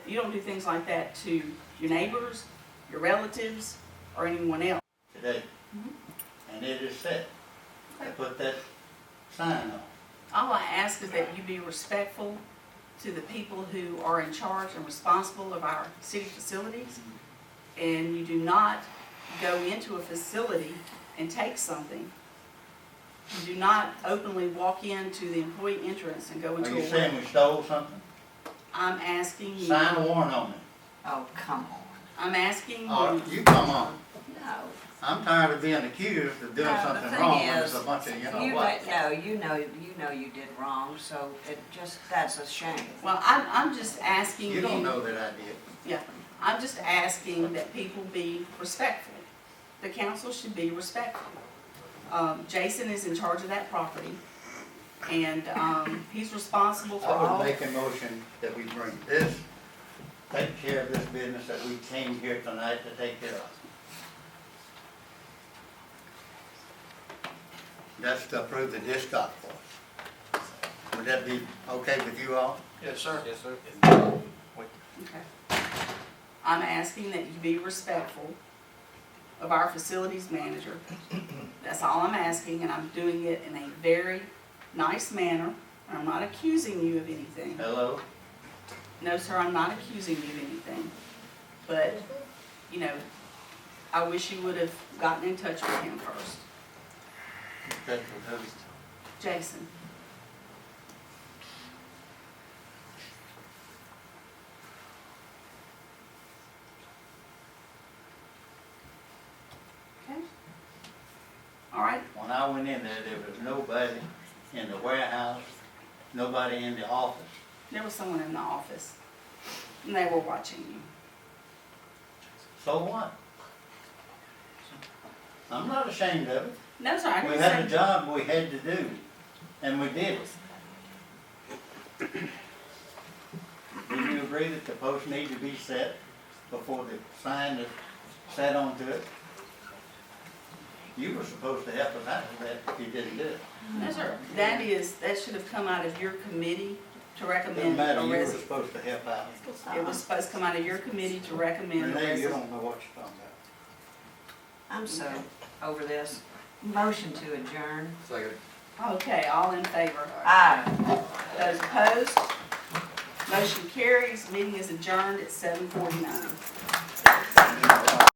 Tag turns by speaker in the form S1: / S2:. S1: You don't do things like that to your neighbors, your relatives, or anyone else.
S2: today.
S1: Mhm.
S3: Mm-hmm.
S2: And it is set. I put that sign on.
S1: All I ask is that you be respectful to the people who are in charge and responsible of our city facilities. And you do not go into a facility and take something. You do not openly walk into the employee entrance and go
S2: Are
S1: into
S2: you
S1: a room.
S2: saying we stole something?
S1: I'm asking you,
S2: Sign a warrant on it.
S3: Oh, come on.
S1: I'm asking
S3: Mm-hmm.
S2: Or
S1: you,
S2: you come on.
S3: No.
S2: I'm tired of being accused of doing
S3: No, the
S2: something
S3: thing
S2: wrong when it's
S3: is,
S2: a bunch of, you know
S3: You
S2: what?
S3: let- No, you know, you know you did wrong, so it just, that's a shame.
S1: well, I'm, I'm just asking you.
S2: You don't know that I did.
S1: I'm just asking that people be respectful. The council should be respectful. Um, Jason is in charge of that property, and, um, he's responsible for
S2: I would
S1: all.
S2: make a motion that we bring this, take care of this business that we came here tonight to take care of. That's to approve the disc golf course. Would that be okay with you all?
S4: Yes, sir. Yes, sir.
S1: Okay. I'm asking that you be respectful of our facilities manager. That's all I'm asking, and I'm doing it in a very nice manner, and I'm not accusing you of anything.
S2: Hello?
S1: No, sir, I'm not accusing you of anything, but, you know, I wish you would have gotten in touch with him first.
S2: Okay, who-
S1: Jason, okay? All right,
S2: When I went in there, there was nobody in the warehouse, nobody in the office.
S1: there was someone in the office, and they were watching you.
S2: So what? I'm not ashamed of it.
S1: No, sir, I
S2: We
S1: didn't
S2: had a
S1: say,
S2: job we had to do, and we did it. Do you agree that the post need to be set before the sign is set onto it? You were supposed to help us out with that, you didn't do it.
S1: no, sir, that is, that should have come out of your committee to
S2: Doesn't
S1: recommend a
S2: matter, you were
S1: resi-
S2: supposed to help out.
S1: It was supposed to come out of your committee to recommend. the
S2: Renee, you
S1: resi-
S2: don't know what you're talking about.
S3: I'm so over this. Motion to adjourn.
S4: Second.
S1: Okay, all in favor?
S3: Aye.
S1: Those opposed? Motion carries, meeting is adjourned at seven forty-nine.